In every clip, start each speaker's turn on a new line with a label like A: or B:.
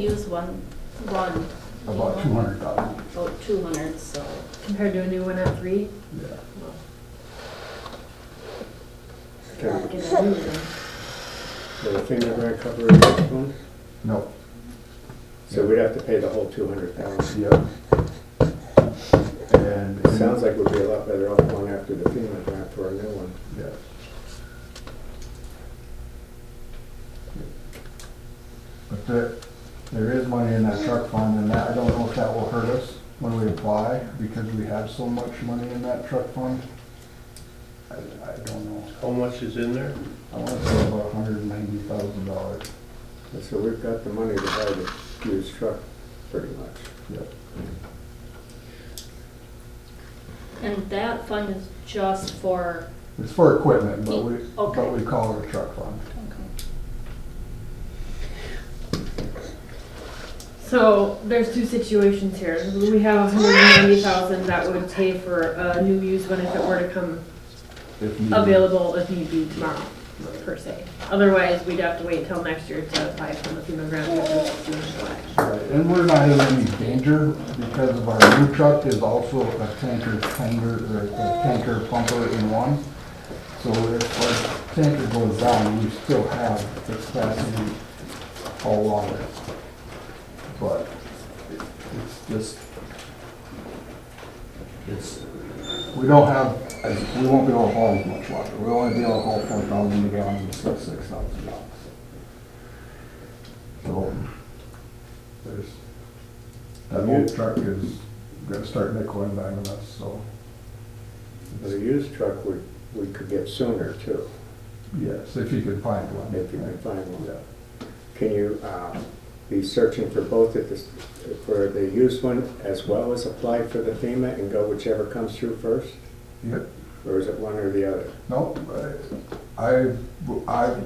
A: use one, one.
B: about two hundred thousand,
A: About two hundred, so.
C: Compared to a new one at three?
B: yeah.
C: Not
B: Okay,
C: gonna do that.
D: So the thing that we're gonna cover is this one,
B: no,
D: so we'd have to pay the whole two hundred thousand.
B: yeah. And.
D: It sounds like we'd be a lot better off going after the FEMA grant for a new one.
B: Yes. But there, there is money in that truck fund, and that, I don't know if that will hurt us when we apply, because we have so much money in that truck fund. I, I don't know,
E: How much is in there?
B: I wanna say about hundred and ninety thousand dollars.
D: And so we've got the money to buy the used truck, pretty much.
B: Yep.
A: And that fund is just for,
B: It's for equipment, but we,
A: Okay.
B: but we call it a truck fund.
C: So there's two situations here. We have a hundred and ninety thousand that would pay for a new used one if it were to come
B: If needed.
C: available if need be tomorrow, per se. Otherwise, we'd have to wait till next year to apply for the FEMA grant, which is due in July.
B: Right, And we're not in any danger because of our new truck is also a tanker tanker, or a tanker pumper in one. So if our tanker goes down, we still have the capacity all along it. But it- it's just, it's, we don't have, we won't be able to haul as much water. We'll only be able to haul four thousand gallons instead of six thousand gallons. So there's, that old truck is gonna start nickel and diming us, so,
D: The used truck, we, we could get sooner too,
B: yes, if you can find one.
D: if you can find one.
B: Yeah,
D: Can you uh, be searching for both at this, for the used one as well as apply for the FEMA and go whichever comes through first?
B: Yep.
D: Or is it one or the other?
B: Nope, I, I,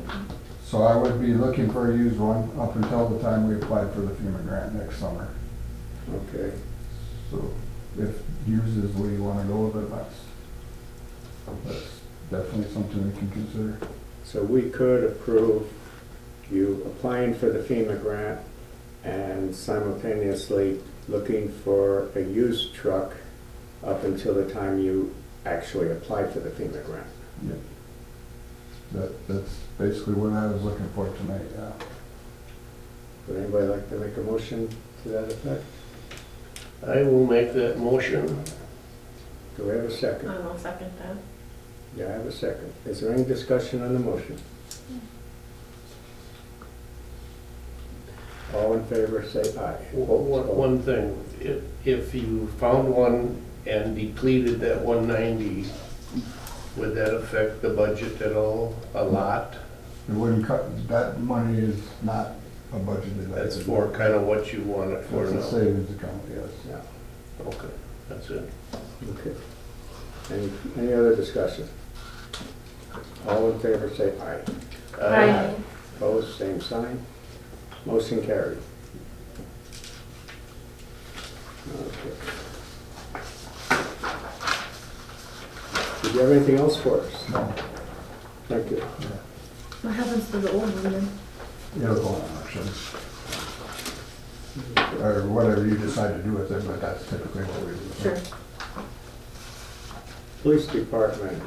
B: so I would be looking for a used one up until the time we apply for the FEMA grant next summer.
D: Okay,
B: So if used is where you wanna go, then that's, that's definitely something we can consider.
D: so we could approve you applying for the FEMA grant and simultaneously looking for a used truck up until the time you actually apply for the FEMA grant.
B: That, that's basically what I was looking for tonight, yeah.
D: Would anybody like to make a motion to that effect?
E: I will make that motion.
D: Do we have a second?
C: I will second that.
D: Yeah, I have a second. Is there any discussion on the motion? All in favor, say aye.
E: One- One one thing, if, if you found one and depleted that one ninety, would that affect the budget at all? A lot?
B: It wouldn't cut, that money is not a budgeted item.
E: That's for kind of what you want it for
B: It's a
E: now.
B: savings account, yes.
D: Yeah,
E: Okay, that's it.
D: okay. Any, any other discussion? All in favor, say aye.
E: Uh,
C: Aye.
D: Opposed, same sign. Motion carried. Okay. Did you have anything else for us?
B: No,
D: Thank you.
C: What happens to the old one then?
B: it'll go on auction. Or whatever you decide to do with it, but that's typically what we do.
C: Sure.
D: Police Department,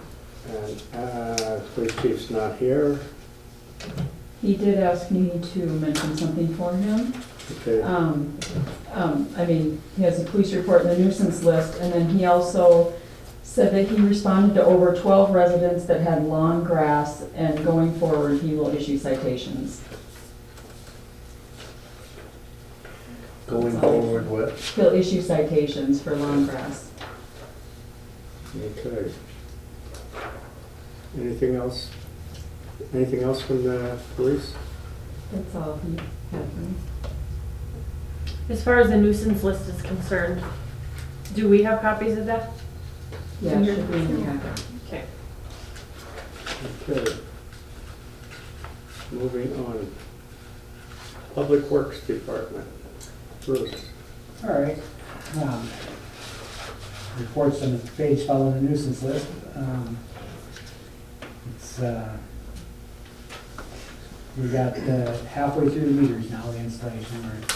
D: and, uh, police chief's not here,
F: He did ask me to mention something for him.
D: okay,
F: Um, um, I mean, he has a police report and a nuisance list, and then he also said that he responded to over 12 residents that had lawn grass, and going forward, he will issue citations.
E: Going forward with,
F: He'll issue citations for lawn grass.
D: okay. Anything else? Anything else from the police?
F: That's all he had for me.
C: As far as the nuisance list is concerned, do we have copies of that?
F: Yeah, it should be in the packet.
C: Okay.
D: Okay. Moving on. Public Works Department, Bruce.
G: All right. um, Reports on the page following the nuisance list. um, It's, uh, We got uh, halfway through the meters now, the installation, we're